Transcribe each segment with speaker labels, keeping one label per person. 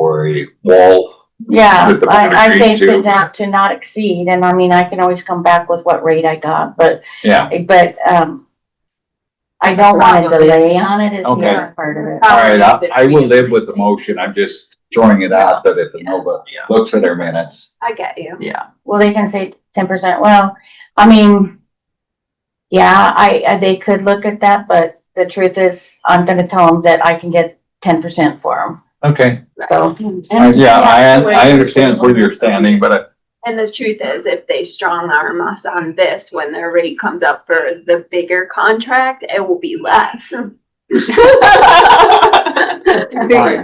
Speaker 1: temporary wall.
Speaker 2: Yeah,
Speaker 1: With the
Speaker 2: I, I
Speaker 1: boundary
Speaker 2: think
Speaker 1: too.
Speaker 2: that not, to not exceed, and I mean, I can always come back with what rate I got, but,
Speaker 1: Yeah,
Speaker 2: but, um, I don't want to
Speaker 3: Problem is-
Speaker 2: delay on it is the
Speaker 1: Okay.
Speaker 2: other part of it.
Speaker 1: all right,
Speaker 3: Um,
Speaker 1: I, I will live with the motion. I'm just throwing it out that if the Nova
Speaker 4: Yeah.
Speaker 1: looks at our minutes.
Speaker 3: I get you.
Speaker 2: Well, they can say ten percent, well, I mean, yeah, I, I- they could look at that, but the truth is, I'm gonna tell them that I can get ten percent for
Speaker 1: Okay.
Speaker 2: them, so.
Speaker 1: I- Yeah,
Speaker 3: that's the way
Speaker 1: I, I
Speaker 3: we
Speaker 1: understand
Speaker 3: should
Speaker 1: where
Speaker 3: look
Speaker 1: you're
Speaker 3: at it.
Speaker 1: standing, but I-
Speaker 3: And the truth is, if they strong arm us on this, when their rate comes up for the bigger contract, it will be less.
Speaker 1: I,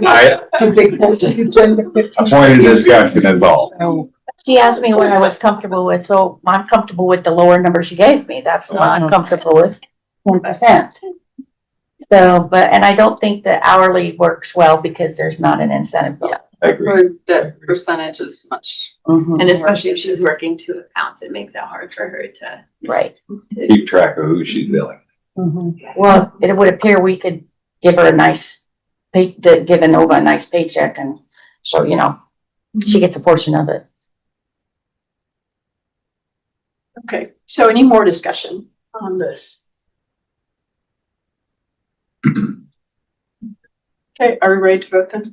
Speaker 1: I pointed discussion involved.
Speaker 2: She asked me what I was comfortable with, so I'm comfortable with the lower number she gave me, that's the one I'm comfortable with, ten percent. So, but, and I don't think the hourly works well because there's not an incentive. bill.
Speaker 1: I agree.
Speaker 4: That percentage is much.
Speaker 2: Mhm,
Speaker 3: And especially if she's working two accounts, it makes it hard for her to.
Speaker 2: Right,
Speaker 3: to-
Speaker 1: Keep track of who she's billing.
Speaker 2: well, it would appear we could give her a nice, pay, to give Inova a nice paycheck and so, you know, she gets a portion of it.
Speaker 4: Okay, so any more discussion on this? Okay, are we ready to vote then?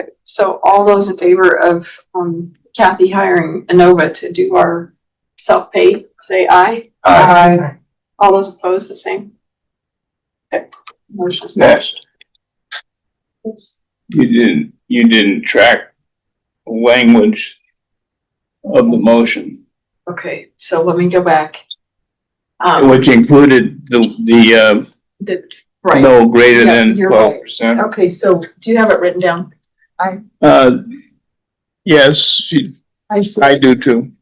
Speaker 4: Okay, So all those in favor of um, Kathy hiring Inova to do our self-pay, say aye.
Speaker 1: Uh,
Speaker 4: All those opposed, the same? Okay, motion's
Speaker 1: Next.
Speaker 4: passed.
Speaker 5: You didn't, you didn't track language of the motion,
Speaker 4: Okay, so let me go back. Um,
Speaker 5: which included the, the,
Speaker 4: the,
Speaker 5: uh,
Speaker 4: right,
Speaker 5: no greater than
Speaker 4: Yeah, you're right.
Speaker 5: twelve percent.
Speaker 4: okay, so do you have it written down? Oh.
Speaker 5: Uh, yes, she-
Speaker 6: I
Speaker 5: I
Speaker 6: see.
Speaker 5: do too.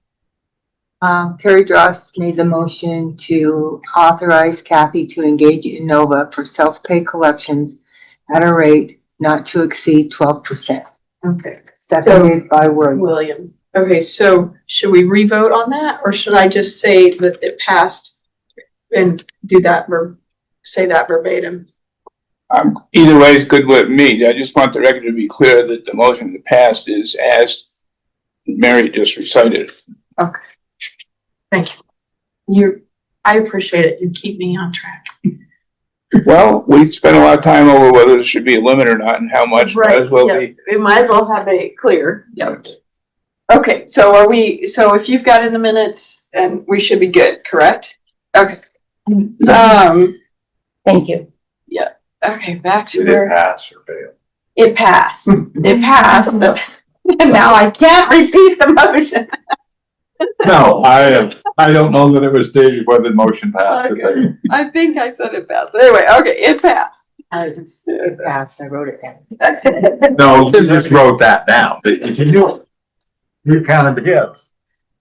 Speaker 6: Um, Terry Dross made the motion to authorize Kathy to engage Innova for self-pay collections at a rate not to exceed twelve percent,
Speaker 4: Okay.
Speaker 6: seconded by Word.
Speaker 4: William. Okay, so should we revote on that, or should I just say that it passed and do that ver, say that verbatim?
Speaker 5: Um, either way is good with me. I just want the record to be clear that the motion that passed is as Mary just recited.
Speaker 4: You, I appreciate it. You keep me on track.
Speaker 5: Well, we spent a lot of time over whether there should be a limit or not and how much, might as well be.
Speaker 4: We might as well have it clear. Yep. Okay, so are we, so if you've got in the minutes, and we should be good, correct? Okay. Um,
Speaker 2: Thank you.
Speaker 4: okay, back to
Speaker 1: Did it
Speaker 4: where,
Speaker 1: pass or fail?
Speaker 4: it passed. It passed. Now I can't repeat the motion.
Speaker 1: No, I, I don't know that it was stated whether the motion passed or
Speaker 4: Okay.
Speaker 1: failed.
Speaker 4: I think I said it fast. Anyway, okay, it passed.
Speaker 6: It passed, I wrote it down.
Speaker 1: No, you just wrote that down. Did you do it? You counted the hits.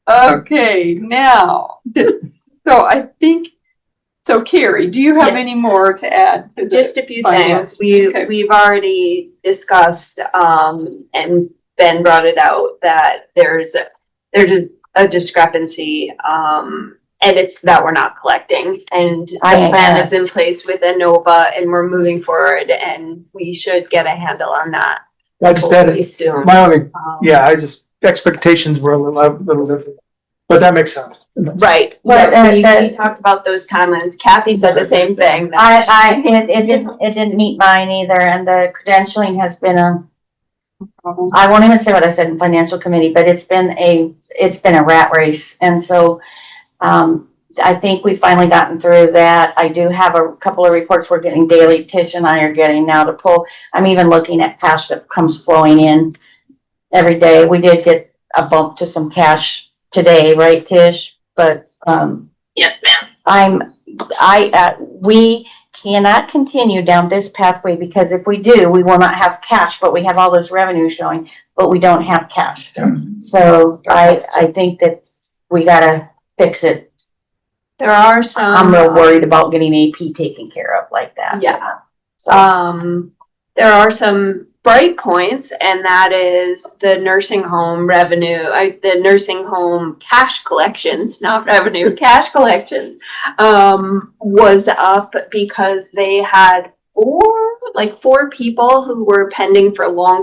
Speaker 4: Okay, now, this- so I think, so Carrie, do you have any more to add? to the-
Speaker 3: Just a few
Speaker 4: Finance,
Speaker 3: things. We,
Speaker 4: okay.
Speaker 3: we've already discussed, um, and Ben brought it out that there's, a- there's a- a discrepancy, um, and it's that we're not collecting. And the
Speaker 2: I ain't
Speaker 3: plan
Speaker 2: got it.
Speaker 3: is in place with Inova and we're moving forward and we should get a handle on that.
Speaker 7: I just added,
Speaker 3: hopefully Soon.
Speaker 7: my only,
Speaker 3: Um,
Speaker 7: yeah, I just, expectations were a little, little different, but that makes sense.
Speaker 3: Right,
Speaker 2: Well,
Speaker 3: yeah,
Speaker 2: and
Speaker 3: we,
Speaker 2: that-
Speaker 3: we talked about those timelines. Kathy said the same thing. that
Speaker 2: I, I, it, it didn't, it didn't meet mine either, and the credentialing has been a, I won't even say what I said in financial committee, but it's been a, it's been a rat race, and so, um, I think we've finally gotten through that. I do have a couple of reports we're getting daily, Tish and I are getting now to pull. I'm even looking at cash that comes flowing in every day. We did get a bump to some cash today, right, Tish? But, um.
Speaker 3: Yes,
Speaker 2: ma'am. I'm, I, uh, we cannot continue down this pathway because if we do, we will not have cash, but we have all this revenue showing, but we don't have cash. So I, I think that we gotta fix it.
Speaker 3: There are some.
Speaker 2: I'm real worried about getting AP taken care of like that.
Speaker 3: Yeah.
Speaker 2: So-
Speaker 3: Um, there are some bright points, and that is the nursing home revenue, I, the nursing home cash collections, not revenue, cash collections, um, was up because they had four, like four people who were pending for long